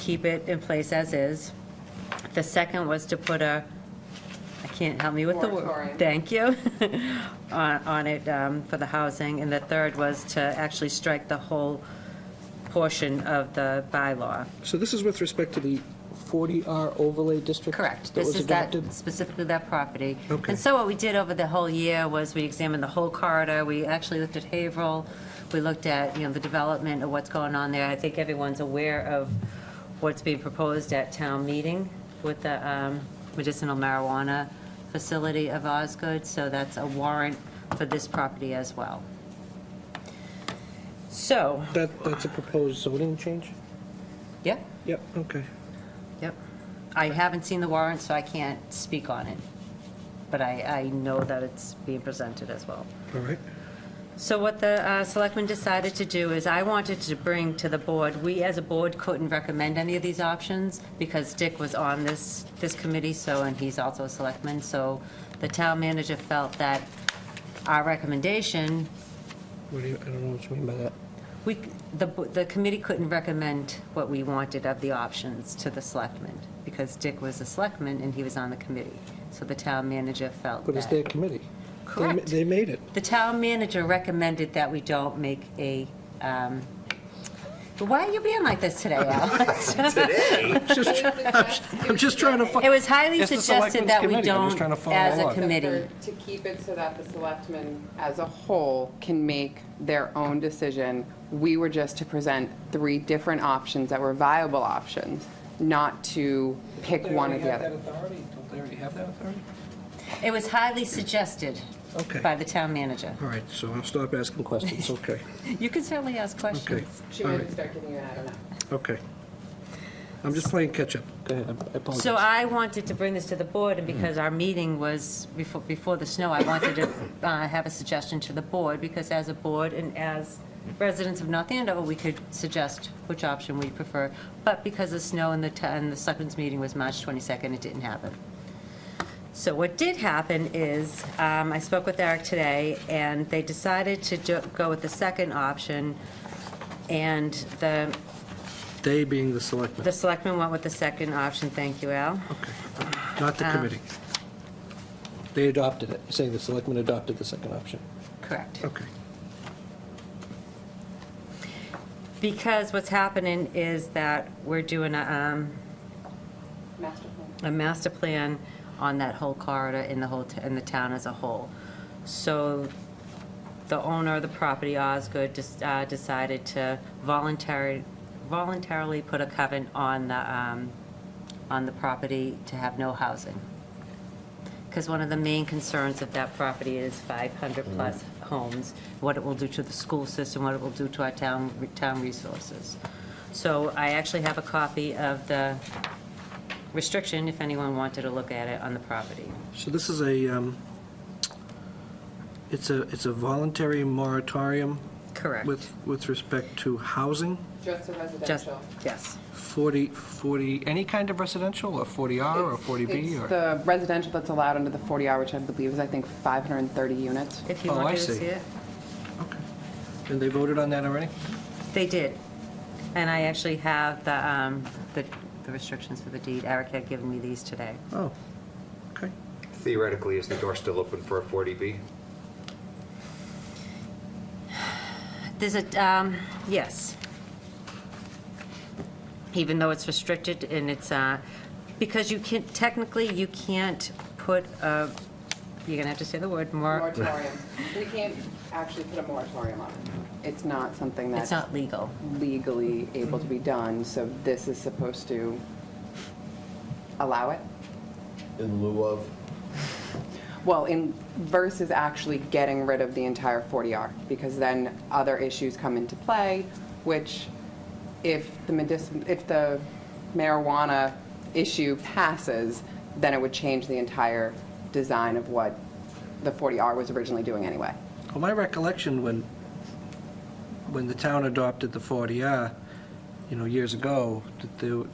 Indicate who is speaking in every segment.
Speaker 1: keep it in place as is. The second was to put a, I can't help me with the word.
Speaker 2: Moratorium.
Speaker 1: Thank you, on, on it um, for the housing. And the third was to actually strike the whole portion of the bylaw.
Speaker 3: So this is with respect to the 40R overlay district?
Speaker 1: Correct.
Speaker 3: That
Speaker 1: This
Speaker 3: was
Speaker 1: is that,
Speaker 3: adopted?
Speaker 1: specifically that property.
Speaker 3: Okay.
Speaker 1: And so what we did over the whole year was we examined the whole corridor. We actually looked at Haverhill. We looked at, you know, the development of what's going on there. I think everyone's aware of what's being proposed at town meeting with the um, medicinal marijuana facility of Osgood. So that's a warrant for this property as well. So,
Speaker 3: That, that's a proposed zoning change?
Speaker 1: yeah,
Speaker 3: Yep, okay.
Speaker 1: Yep. I haven't seen the warrant, so I can't speak on it. But I, I know that it's being presented as well.
Speaker 3: All right.
Speaker 1: So what the uh, selectmen decided to do is I wanted to bring to the board, we as a board couldn't recommend any of these options because Dick was on this, this committee, so, and he's also a selectman. So the town manager felt that our recommendation
Speaker 3: What do you, I don't know what you mean by that.
Speaker 1: we, the, the committee couldn't recommend what we wanted of the options to the selectmen, because Dick was a selectman and he was on the committee. So the town manager felt
Speaker 3: But it's their
Speaker 1: that.
Speaker 3: committee. They ma-
Speaker 1: Correct.
Speaker 3: They made it.
Speaker 1: The town manager recommended that we don't make a, um, why are you being like this today, Alice?
Speaker 3: Just- I'm just trying to
Speaker 1: It
Speaker 3: find,
Speaker 1: was highly
Speaker 3: It's the
Speaker 1: suggested
Speaker 3: selectmen's
Speaker 1: that we
Speaker 3: committee. I'm just
Speaker 1: don't,
Speaker 3: trying to follow
Speaker 1: as a
Speaker 3: along.
Speaker 1: committee.
Speaker 2: To keep it so that the selectmen as a whole can make their own decision. We were just to present three different options that were viable options, not to pick one or the other.
Speaker 3: authority? Don't they already have that authority?
Speaker 1: It was highly suggested
Speaker 3: Okay.
Speaker 1: by the town manager.
Speaker 3: All right, so I'll stop asking questions, okay,
Speaker 1: You can certainly ask
Speaker 3: okay,
Speaker 1: questions.
Speaker 2: She
Speaker 3: All
Speaker 2: might
Speaker 3: right.
Speaker 2: start giving you, an I don't know.
Speaker 3: okay. I'm just playing catch-up. Go ahead, I apologize.
Speaker 1: So I wanted to bring this to the board, and because our meeting was before, before the snow, I wanted to uh, have a suggestion to the board, because as a board and as residents of North Andover, we could suggest which option we prefer. But because of snow and the, t- and the selectmen's meeting was March 22nd, it didn't happen. So what did happen is, um, I spoke with Eric today, and they decided to do- go with the second option, and the,
Speaker 3: They being the selectmen,
Speaker 1: the selectmen went with the second option, thank you, Al.
Speaker 3: okay, Uh, not the committee. They adopted it, You're saying the selectmen adopted the second option,
Speaker 1: Correct.
Speaker 3: okay.
Speaker 1: Because what's happening is that we're doing a, um,
Speaker 2: Master plan.
Speaker 1: a master plan on that whole corridor in the whole, t- in the town as a whole. So the owner of the property, Osgood, just, uh, decided to voluntary, voluntarily put a covenant on the, um, on the property to have no housing. Because one of the main concerns of that property is 500-plus homes, what it will do to the school system, what it will do to our town, town resources. So I actually have a copy of the restriction, if anyone wanted to look at it, on the property.
Speaker 3: So this is a, um, it's a, it's a voluntary moratorium
Speaker 1: Correct.
Speaker 3: with, with respect to housing,
Speaker 2: Just a
Speaker 1: Just,
Speaker 2: residential.
Speaker 1: yes.
Speaker 3: 40, 40, any kind of residential, or 40R or
Speaker 2: It's-
Speaker 3: 40B,
Speaker 2: It's
Speaker 3: or?
Speaker 2: the residential that's allowed under the 40R, which I believe is, I think, 530 units.
Speaker 1: If you
Speaker 3: Oh, I
Speaker 1: wanted to
Speaker 3: see.
Speaker 1: see it.
Speaker 3: Okay. And they voted on that already?
Speaker 1: They did. And I actually have the, um, the the restrictions for the deed. Eric had given me these today.
Speaker 3: Oh, okay.
Speaker 4: Theoretically, is the door still open for a 40B?
Speaker 1: There's a, um, yes. Even though it's restricted and it's, uh, because you can, technically, you can't put a, you're gonna have to say the word, more,
Speaker 2: Moratorium. We can't actually put a moratorium on it. It's not something that's.
Speaker 1: it's not legal.
Speaker 2: legally able to be done, so this is supposed to allow it?
Speaker 5: in lieu of,
Speaker 2: Well, in, versus actually getting rid of the entire 40R, because then other issues come into play, which if the medicinal, if the marijuana issue passes, then it would change the entire design of what the 40R was originally doing anyway.
Speaker 3: Well, my recollection when, when the town adopted the 40R, you know, years ago, that the,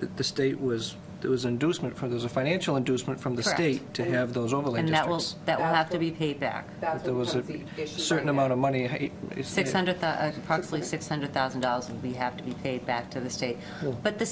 Speaker 3: that the state was there was inducement from, there's a financial inducement from the
Speaker 1: Correct.
Speaker 3: state to have those overlay
Speaker 1: And that will,
Speaker 3: districts.
Speaker 1: that will have to be paid back.
Speaker 2: That's
Speaker 3: There
Speaker 2: what
Speaker 3: was a
Speaker 2: becomes the issue right
Speaker 3: certain
Speaker 2: now.
Speaker 3: amount of money. eh, hey, it's-
Speaker 1: uh, 600, approximately $600,000 will be, have to be paid back to the state. But the